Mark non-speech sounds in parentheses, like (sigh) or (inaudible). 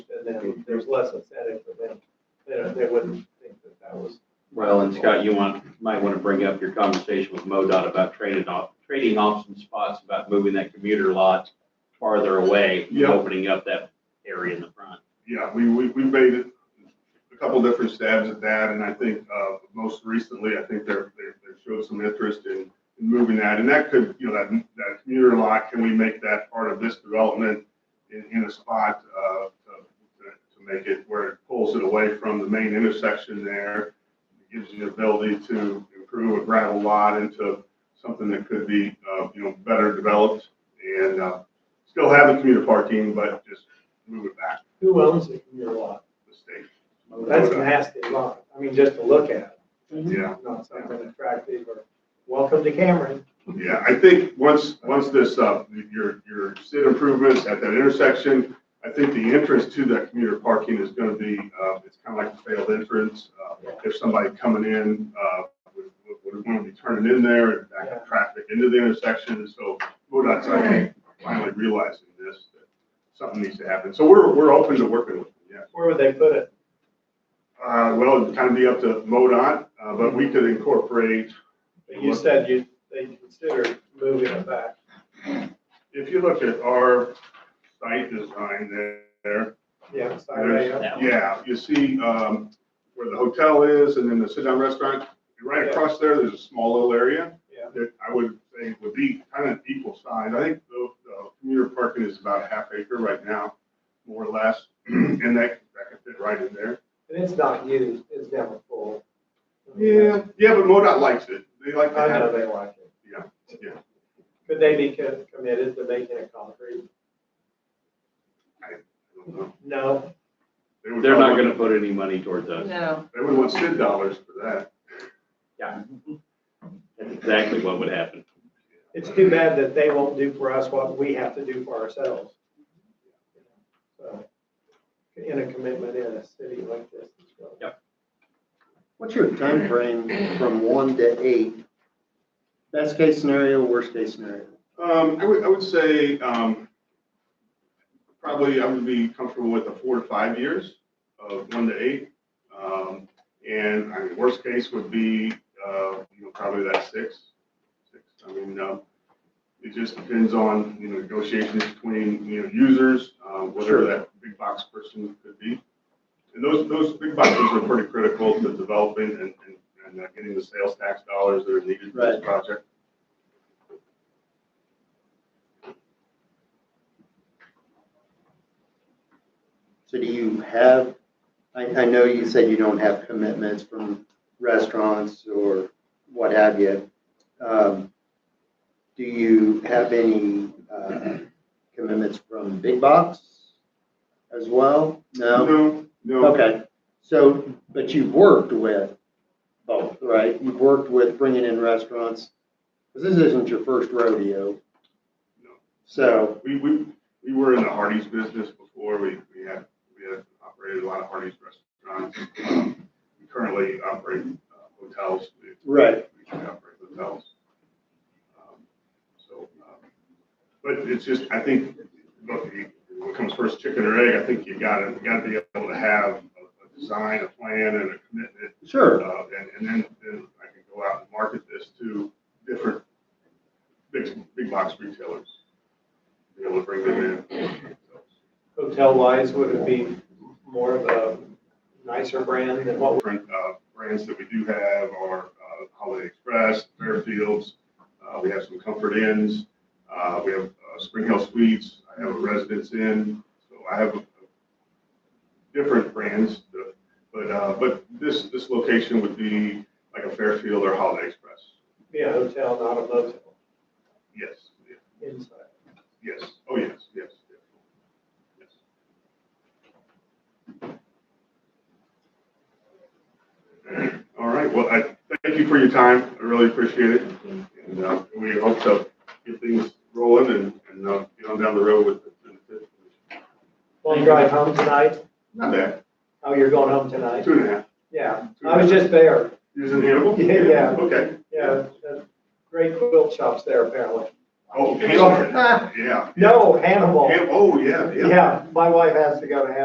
and then there's less aesthetic for them. They don't, they wouldn't think that that was. Well, and Scott, you want, might want to bring up your conversation with MoDOT about trading off, trading off some spots about moving that commuter lot farther away, and Yeah. opening up that area in the front. Yeah, we, we, we made it a couple different stabs at that, and I think, uh, most recently, I think they're, they're, they showed some interest in in moving that, and that could, you know, that, that commuter lot, can we make that part of this development in, in a spot, uh, to, to make it where it pulls it away from the main intersection there? It Gives you the ability to improve a gravel lot into something that could be, uh, you know, better developed and, uh, still have the commuter parking, but just move it back Who owns it in your lot? the state. That's a nasty lot. I mean, just to look at, Yeah, not something attractive or welcome to Cameron. yeah, I think once, once this, uh, your, your SID improvements at that intersection, I think the entrance to that commuter parking is gonna be, uh, it's kind of like a failed entrance. Uh, If somebody coming in, uh, would, would- would want to be turning in there and back up traffic into the intersection, and so MoDOT's, I think, finally realizing this, that something needs to happen. So we're, we're open to working with them, yeah. Where would they put it? Uh, well, it'd kind of be up to MoDOT, uh, but we could incorporate But you said you, they considered moving it back. If you look at our site design there, Yeah, side layout. That one. yeah, you see um, where the hotel is and then the sit-down restaurant. Right across there, there's a small little area Yeah. that I would say would be kind of equal size. I think the the commuter parking is about a half acre right now, more or less, (clears throat) and that that could fit right in there. And it's not used, it's never full. Yeah, yeah, but MoDOT likes it. They like to I know have they it. like it. Yeah, yeah. Could they be co- committed to making it concrete? I don't know. No. They would They're not probably- gonna put any money towards us. No, They would want SID dollars for that. That's exactly what would happen. It's too bad that they won't do for us what we have to do for ourselves. So, In a commitment in a city like this. What's your time frame from one to eight? Best case scenario, worst case scenario? Um, I would, I would say, um, probably I would be comfortable with a four to five years of one to eight. Um, and I mean, worst case would be, uh, you know, probably that six, six. I mean, um, it just depends on, you know, negotiations between, you know, users, uh, whatever that big box person could be. And those, those big boxes are pretty critical to developing and, and, and uh, getting the sales tax dollars that are needed for this Right. project. So do you have, I, I know you said you don't have commitments from restaurants or what have you. Um, Do you have any uh, commitments from big box as well? No? No, no. Okay, so, but you've worked with both, right? You've worked with bringing in restaurants, because this isn't your first rodeo. No. So, We, we, we were in the Hardee's business before. We, we had, we had operated a lot of Hardee's restaurants. Um, We currently operate uh, hotels. We- Right. We operate hotels. Um, So, um, but it's just, I think, look, you- what comes first, chicken or egg? I think you gotta, you gotta be able to have a a design, a plan and a commitment sure, uh, and, and then, then I can go out and market this to different big, big box retailers. Be able to bring them in. Hotel wise, would it be more of a nicer brand than what? Different, uh, brands that we do have are, uh, Holiday Express, Fairfields, uh, we have some Comfort Inns, uh, we have, uh, Spring Hill Suites, I have a Residence Inn, so I have a- different brands, that- but, uh, but this, this location would be like a Fairfield or Holiday Express. Be a hotel, not a motel Yes, yes. inside. Yes, oh, yes, yes, yes. yes. All right, well, I thank you for your time, I really appreciate it. And uh, we hope to get things rolling and, and uh, get on down the road with the, Want to drive home tonight? not bad, Oh, you're going home tonight? two and a half. Yeah, I was just there. Using Hannibal? Yeah, yeah. Okay. Yeah, there's great quilt shops there apparently. (laughs) Oh, Hannibal, yeah. No, Hannibal. Hannibal, oh, yeah, yeah. Yeah, my wife has to go to Hannibal.